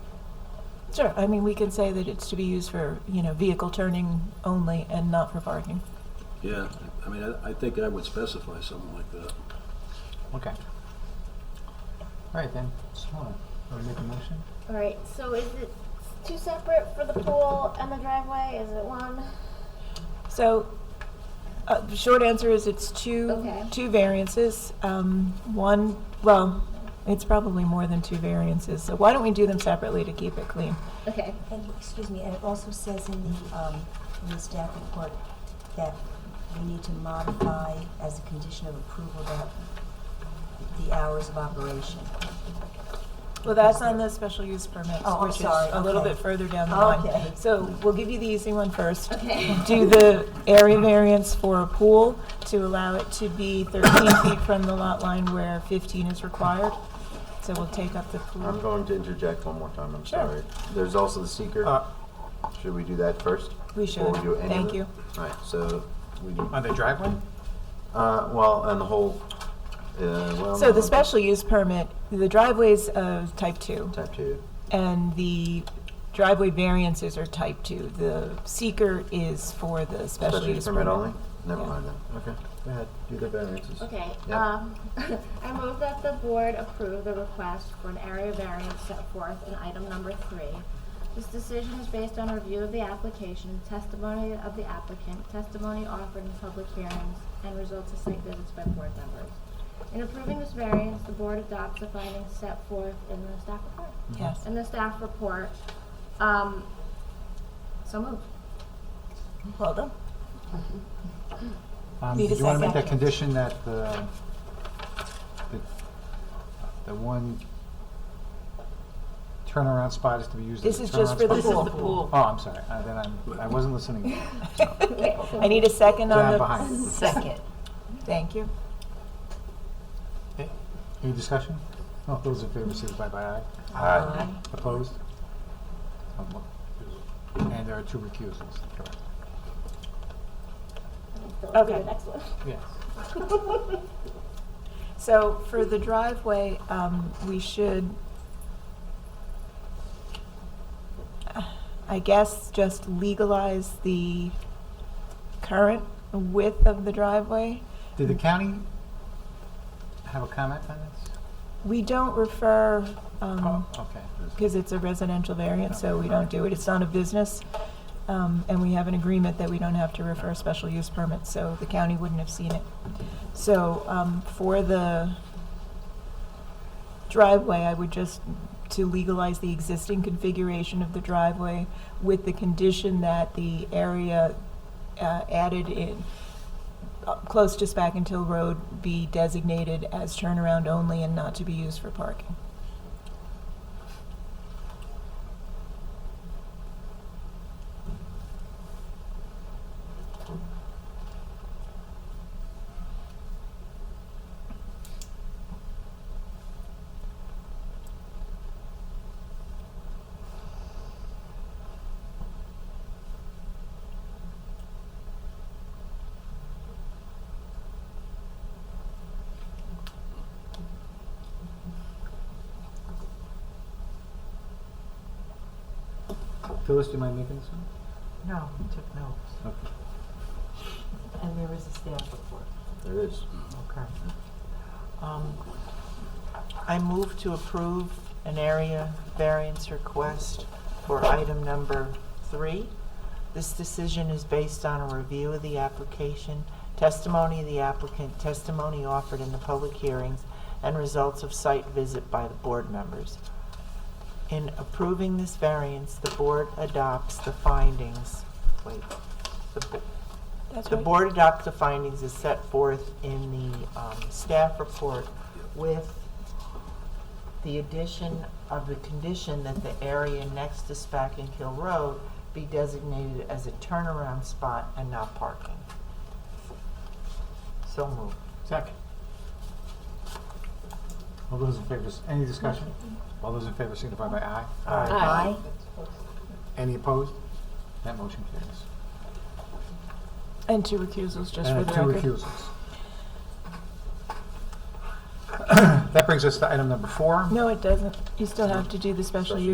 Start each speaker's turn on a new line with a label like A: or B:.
A: Sure, I mean, we can say that it's to be used for, you know, vehicle turning only and not for parking.
B: Yeah, I mean, I, I think I would specify something like that.
C: Okay. All right then, just wanna, wanna make a motion?
D: All right. So is it two separate for the pool and the driveway? Is it one?
A: So, uh, the short answer is it's two,
D: Okay.
A: two variances. Um, one, well, it's probably more than two variances, so why don't we do them separately to keep it clean?
D: Okay.
E: And, excuse me, and it also says in the, um, in the staff report that we need to modify as a condition of approval that the hours of operation.
A: Well, that's on the special use permits,
E: Oh, I'm
A: which is
E: sorry,
A: a little
E: okay.
A: bit further down the line.
E: Okay.
A: So we'll give you the easy one first.
D: Okay.
A: Do the area variance for a pool to allow it to be 13 feet from the lot line where 15 is required. So we'll take up the
F: I'm
A: pool.
F: going to interject one more time, I'm
A: Sure.
F: sorry. There's also the seeker.
C: Uh,
F: Should we do that first?
A: We
F: Before
A: should.
F: do any of
A: Thank
F: it?
A: you.
F: All right, so we do,
C: on the driveway?
F: uh, well, and the whole, uh, well.
A: So the
F: no,
A: special use permit, the driveway's of type 2,
F: Type two.
A: and the driveway variances are type 2. The seeker is for the special use
F: permit
A: permit.
F: only? Never
A: Yeah.
F: mind then. Okay, go ahead, do the variances.
D: Okay.
F: Yep.
D: Um, I move that the board approve the request for an area variance set forth in item number three. This decision is based on review of the application, testimony of the applicant, testimony offered in public hearings, and results of site visits by board members. In approving this variance, the board adopts the findings set forth in the staff report.
A: Yes.
D: In the staff report, um, so moved.
A: Well done.
C: Um,
A: Need a
C: do you wanna make that
A: second.
C: condition that the, the, the one turnaround spot is to be used as
A: This
C: a
A: is just for
C: turnaround spot?
A: the pool.
C: Oh, I'm sorry, uh, then I'm, I wasn't listening.
A: I need a second on
C: Down
A: the...
C: behind.
G: Second.
A: Thank you.
C: Any discussion? All those in favor, signify by aye. Opposed? Um, And there are two recusals, correct?
A: Okay.
C: Yes.
A: So for the driveway, um, we should, I guess, just legalize the current width of the driveway.
C: Did the county have a comment on this?
A: We don't refer, um,
C: Oh, okay.
A: because it's a residential variant, so we don't do it. It's not a business. Um, and we have an agreement that we don't have to refer special use permits, so the county wouldn't have seen it. So, um, for the driveway, I would just, to legalize the existing configuration of the driveway with the condition that the area, uh, added in, uh, close to Spack Hill Road be designated as turnaround only and not to be used for parking.
C: Phyllis, do you mind making this one?
G: No, we took notes.
C: Okay.
G: And there is a staff report.
F: There it is.
G: Okay. Um, I move to approve an area variance request for item number three. This decision is based on a review of the application, testimony of the applicant, testimony offered in the public hearings, and results of site visit by the board members. In approving this variance, the board adopts the findings, wait, the, bo-
A: That's
G: the
A: right.
G: board adopts the findings as set forth in the um, staff report with the addition of the condition that the area next to Spack and Hill Road be designated as a turnaround spot and not parking. So moved.
C: Second. All those in favor, s- any discussion? All those in favor signify by aye.
E: Aye.
C: Any opposed? That motion carries.
A: And two recusals, just for
C: And
A: the
C: Uh, two
A: record.
C: recusals. That brings us to item number four.
A: No, it doesn't. You still have to do the special use.